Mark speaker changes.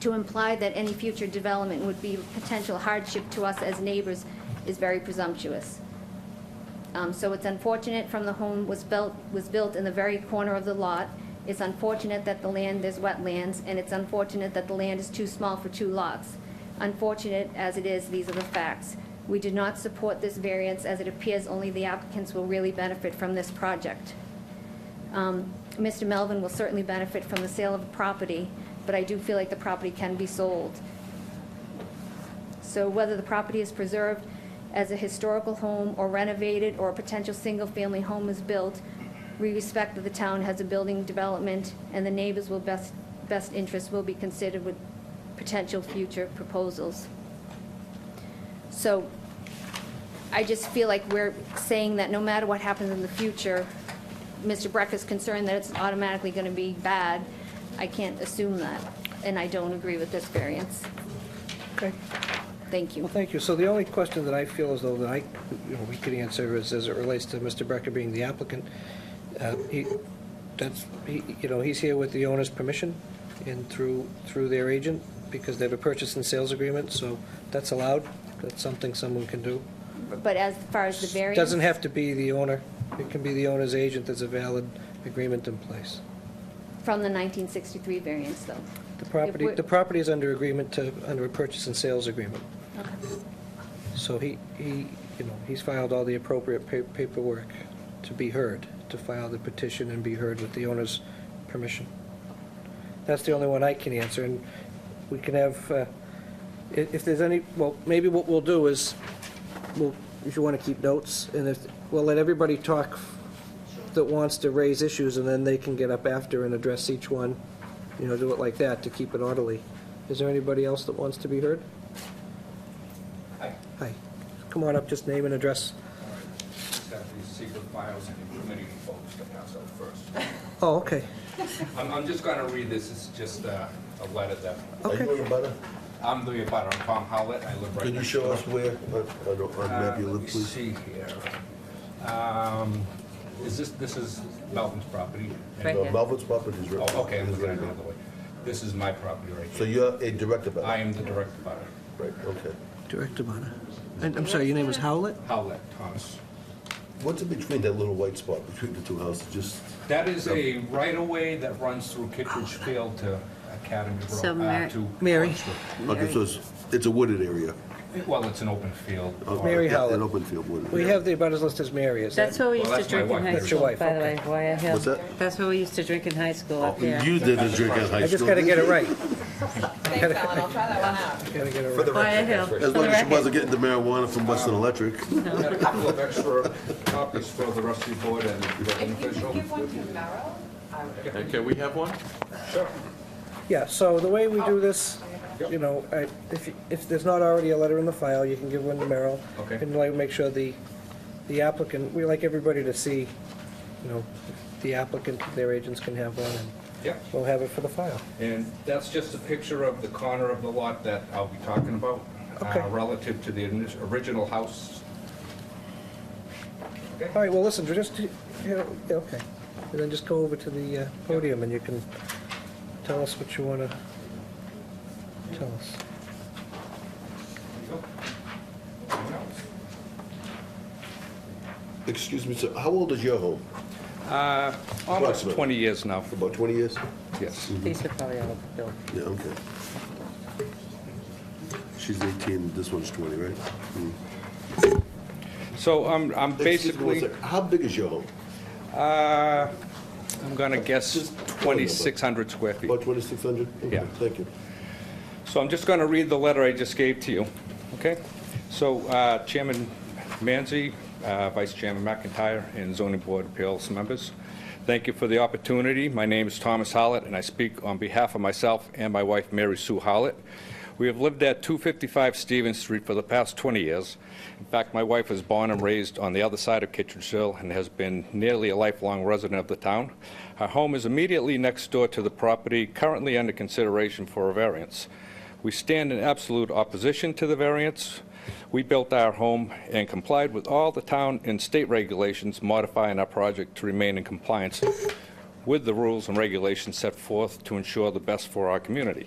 Speaker 1: to imply that any future development would be potential hardship to us as neighbors is very presumptuous. Um, So it's unfortunate from the home was built, was built in the very corner of the lot. It's unfortunate that the land is wetlands, and it's unfortunate that the land is too small for two lots. Unfortunate as it is, these are the facts. We do not support this variance as it appears only the applicants will really benefit from this project. Um, Mr. Melvin will certainly benefit from the sale of the property, but I do feel like the property can be sold. So whether the property is preserved as a historical home or renovated or a potential single-family home is built, we respect that the town has a building development and the neighbors will best, best interest will be considered with potential future proposals. So I just feel like we're saying that no matter what happens in the future, Mr. Breck is concerned that it's automatically going to be bad. I can't assume that, and I don't agree with this variance.
Speaker 2: Okay,
Speaker 1: Thank you.
Speaker 2: well, thank you. So the only question that I feel as though that I, you know, we could answer is, as it relates to Mr. Brecker being the applicant, uh, he, that's, he, you know, he's here with the owner's permission and through, through their agent, because they have a purchase and sales agreement, so that's allowed. That's something someone can do.
Speaker 1: But as far as the variance?
Speaker 2: Doesn't have to be the owner. It can be the owner's agent. There's a valid agreement in place.
Speaker 1: From the 1963 variance, though.
Speaker 2: The property,
Speaker 1: we're-
Speaker 2: the property is under agreement to, under a purchase and sales agreement.
Speaker 1: Okay.
Speaker 2: So he, he, you know, he's filed all the appropriate pa- paperwork to be heard, to file the petition and be heard with the owner's permission. That's the only one I can answer, and we can have, uh, i- if there's any, well, maybe what we'll do is, we'll, if you want to keep notes, and if, we'll let everybody talk that wants to raise issues, and then they can get up after and address each one, you know, do it like that to keep it orderly. Is there anybody else that wants to be heard? Hi. Come on up, just name and address.
Speaker 3: Just have these secret files and incriminating folks to pass out first.
Speaker 2: Oh, okay.
Speaker 3: I'm, I'm just gonna read this, it's just a, a letter that,
Speaker 4: Are you in butter?
Speaker 3: I'm the abutter, I'm Tom Howlett, I live right next door.
Speaker 4: Can you show us where, on- on on
Speaker 3: Uh,
Speaker 4: map you live, please?
Speaker 3: Let me see here. Um, is this, this is Melvin's property?
Speaker 5: Right
Speaker 4: No,
Speaker 5: here.
Speaker 4: Melvin's property is right.
Speaker 3: Oh, okay, I'm
Speaker 4: is
Speaker 3: looking at
Speaker 4: right
Speaker 3: it the
Speaker 4: there.
Speaker 3: other way. This is my property right
Speaker 4: So
Speaker 3: here.
Speaker 4: you're a direct abutter?
Speaker 3: I am the direct abutter,
Speaker 4: Right, okay.
Speaker 2: Director Bonner. And I'm sorry, your name was Howlett?
Speaker 3: Howlett Thomas.
Speaker 4: What's in between that little white spot between the two houses, just?
Speaker 3: That is a right-of-way that runs through Kittredge Field to Academy
Speaker 5: So
Speaker 3: Road, uh,
Speaker 5: Mary-
Speaker 3: to.
Speaker 2: Mary.
Speaker 4: Okay, so it's, it's a wooded area.
Speaker 3: Well, it's an open field.
Speaker 4: Okay,
Speaker 2: Mary
Speaker 4: yeah,
Speaker 2: Howlett.
Speaker 4: An open field wooded.
Speaker 2: We
Speaker 4: area.
Speaker 2: have the abutters list as Mary, is that?
Speaker 5: That's what we
Speaker 3: Well,
Speaker 5: used to
Speaker 3: that's my
Speaker 5: drink in
Speaker 3: wife.
Speaker 5: high
Speaker 3: That's
Speaker 2: your
Speaker 5: school, by
Speaker 2: wife,
Speaker 5: the way,
Speaker 2: okay.
Speaker 5: Wire Hill.
Speaker 4: What's that?
Speaker 5: That's what we used to drink in high school
Speaker 4: Oh,
Speaker 5: up there.
Speaker 4: You didn't drink at high school.
Speaker 2: I just gotta get it right.
Speaker 6: Thanks, Ellen, I'll try that one out.
Speaker 2: Gotta get it right.
Speaker 5: Wire Hill. for
Speaker 4: As
Speaker 5: the
Speaker 4: long as she
Speaker 5: record.
Speaker 4: wasn't getting the marijuana from Western Electric.
Speaker 3: Got a couple of extra copies for the rest of the board and the building
Speaker 6: If you
Speaker 3: official.
Speaker 6: could give one to Merrill, I would.
Speaker 7: Okay, can we have one?
Speaker 2: Yeah, so the way we do this, you know, I- if, you- if there's not already a letter in the file, you can give one to Merrill.
Speaker 3: Okay.
Speaker 2: And like, make sure the, the applicant, we like everybody to see, you know, the applicant, their agents can have one, and
Speaker 3: Yep,
Speaker 2: we'll have it for the file.
Speaker 3: and that's just a picture of the corner of the lot that I'll be talking about. uh,
Speaker 2: Okay.
Speaker 3: Relative to the ini- original house.
Speaker 2: All right, well, listen, just, you know, yeah, okay. And then just go over to the uh, podium and you can tell us what you want to tell us.
Speaker 4: Excuse me, sir, how old is your home?
Speaker 3: Uh, Almost
Speaker 4: Approximately.
Speaker 3: 20 years now,
Speaker 4: About 20 years?
Speaker 3: yes.
Speaker 5: These are probably all built.
Speaker 4: Yeah, okay. She's 18, this one's 20, right? Mm.
Speaker 3: So I'm I'm
Speaker 4: Excuse me one
Speaker 3: basically,
Speaker 4: sec, How big is your home?
Speaker 3: uh, I'm going to guess
Speaker 4: Just one number.
Speaker 3: 2,600 square feet.
Speaker 4: About 2,600? Okay,
Speaker 3: Yeah.
Speaker 4: Thank you.
Speaker 3: So I'm just going to read the letter I just gave to you, okay? So uh, Chairman Manzi, uh, Vice Chairman McIntyre, and zoning board appeals members, thank you for the opportunity. My name is Thomas Howlett, and I speak on behalf of myself and my wife, Mary Sue Howlett. We have lived at 255 Stevens Street for the past 20 years. In fact, my wife was born and raised on the other side of Kittredge Hill and has been nearly a lifelong resident of the town. Our home is immediately next door to the property currently under consideration for a variance. We stand in absolute opposition to the variance. We built our home and complied with all the town and state regulations, modifying our project to remain in compliance with the rules and regulations set forth to ensure the best for our community.